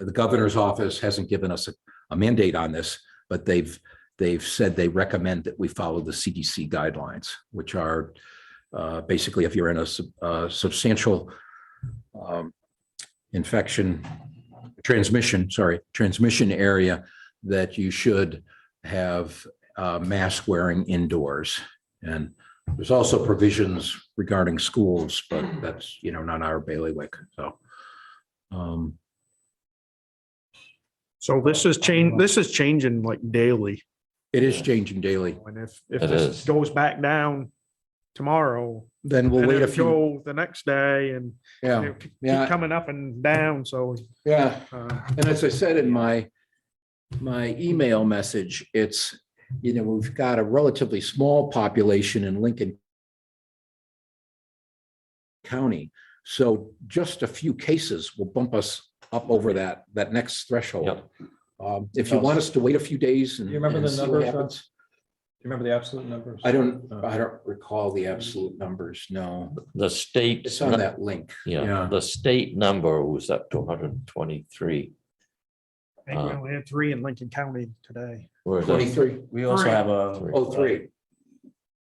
the governor's office hasn't given us a- a mandate on this, but they've, they've said they recommend that we follow the CDC guidelines, which are uh, basically if you're in a sub- uh, substantial um, infection, transmission, sorry, transmission area, that you should have uh, mask wearing indoors. And there's also provisions regarding schools, but that's, you know, not our bailiwick, so. um, So this is change, this is changing like daily. It is changing daily. And if, if It this is. goes back down tomorrow, Then we'll and wait a it'll few, go the next day and yeah, it'll keep yeah. coming up and down, so. yeah. uh, And as I said in my, my email message, it's, you know, we've got a relatively small population in Lincoln County. So just a few cases will bump us up over that, that next threshold. Um, If you want us to wait a few days and. Do you remember and the see what numbers, Uh. Rob? happens- Do you remember the absolute numbers? I don't, I don't recall the absolute numbers, no. The state. It's on that link. yeah. Yeah, the state number was up to hundred and twenty-three. I Uh. think we only had three in Lincoln County today. Whereas the- Twenty-three, We also Three. have a oh, three.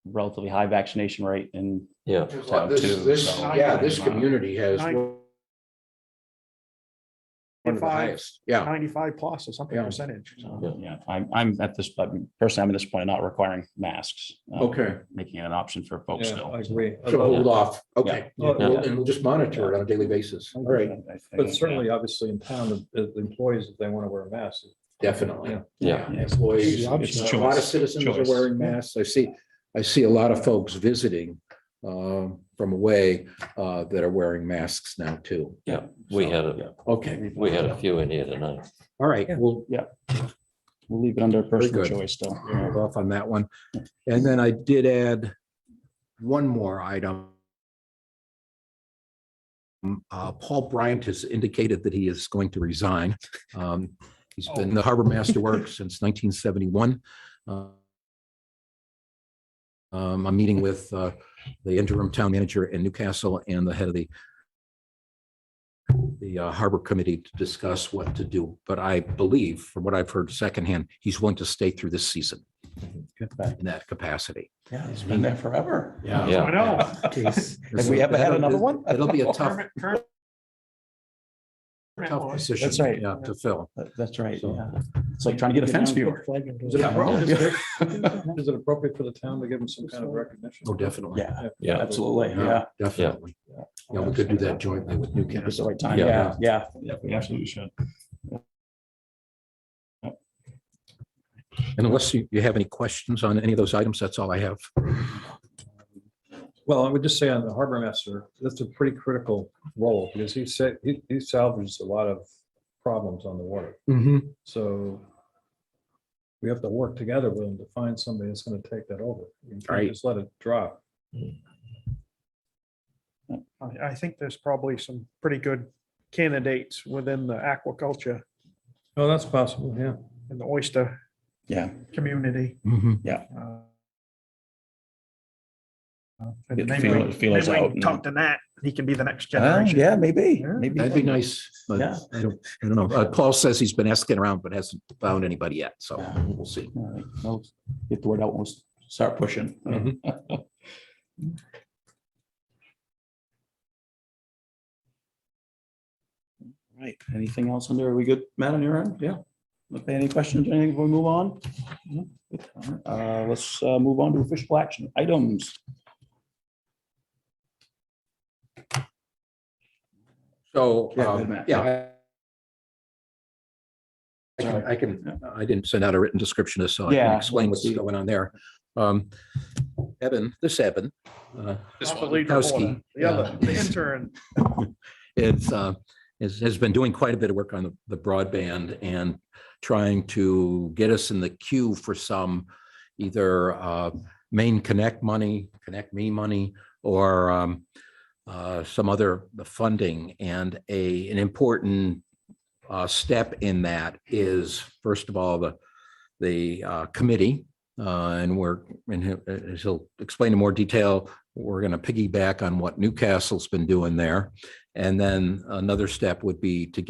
relatively high vaccination rate in Yeah, Town This, two, this, so- yeah, this community has Nine- One of the Five. highest, yeah. Ninety-five plus or something Yeah. percentage. so. Yeah. uh, Yeah, I'm, I'm at this, but personally, I'm at this point of not requiring masks. uh, Okay, Making it an option for folks Yeah, still. I agree. so hold off, okay. Yeah. And we'll- and we'll just monitor it on a daily basis, all right, I think, uh, But certainly, obviously, in town, the- the employees, if they want to wear a mask. definitely. Yeah. Yeah. Employees, It's a lot of choice, citizens are choice. wearing masks, I see, I see a lot of folks visiting um, from away uh, that are wearing masks now too. yeah, we had a, Okay, we had a few in here tonight. all right, we'll We'll leave it under personal good. choice still. hold off on that one. And then I did add one more item. Um, uh, Paul Bryant has indicated that he is going to resign. Um, He's been the harbor master work since nineteen seventy-one. Uh, I'm meeting with uh, the interim town manager in Newcastle and the head of the the uh, harbor committee to discuss what to do, but I believe, from what I've heard secondhand, he's willing to stay through this season in that capacity. Yeah, it's been there forever. Yeah. Yeah. I know. Have we ever had another one? It'll be a tough, Permit- permit- tough position. That's right. yeah, To fill. That- That's right, So- yeah. It's like trying to get a fence viewer. Is it Yeah. appropriate- is it appropriate for the town to give them some kind of recognition? Oh, definitely. Yeah, Yeah. absolutely, yeah. Definitely. Yeah, we could do that jointly with It's Newcastle. the right time, Yeah. yeah, yeah, yeah, we absolutely should. And Unless you, you have any questions on any of those items, that's all I have. Well, I would just say on the harbor master, that's a pretty critical role because he said, he he salvaged a lot of problems on the water. Mm-hmm, So we have to work together with him to find somebody that's going to take that over. You Right. can't just let it drop. I, I think there's probably some pretty good candidates within the aquaculture Oh, that's possible, yeah. and the oyster Yeah, community. Mhm. uh, Get And the maybe feel- we- feelers maybe we out can and- Talk to Nat, he can be the next Ah, generation. yeah, maybe, Yeah. maybe. That'd be nice, but Yeah. I don't, I don't know. Uh, Paul says he's been asking around, but hasn't found anybody yet, so we'll see. All right, well, Uh, Get the word out, we'll s- start pushing. Right, anything else under, are we good, Matt, on your end? Yeah. Okay, any questions, or anything, before we move on? No? Uh, let's uh, move on to official action items. So, Yeah, um, good, Matt. yeah. I- I can- I can, I didn't send out a written description of, so I can Yeah. explain what's going on there. Um, Evan, this Evan. uh, Not the leader of Kowski, order, The other, the intern. It's, uh, has, has been doing quite a bit of work on the- the broadband and trying to get us in the queue for some either, uh, main connect money, connect me money, or, um, uh, some other funding and a, an important, uh, step in that is, first of all, the, the, uh, committee, uh, and we're, and he'll- as he'll explain in more detail, we're going to piggyback on what Newcastle's been doing there. And then another step would be to get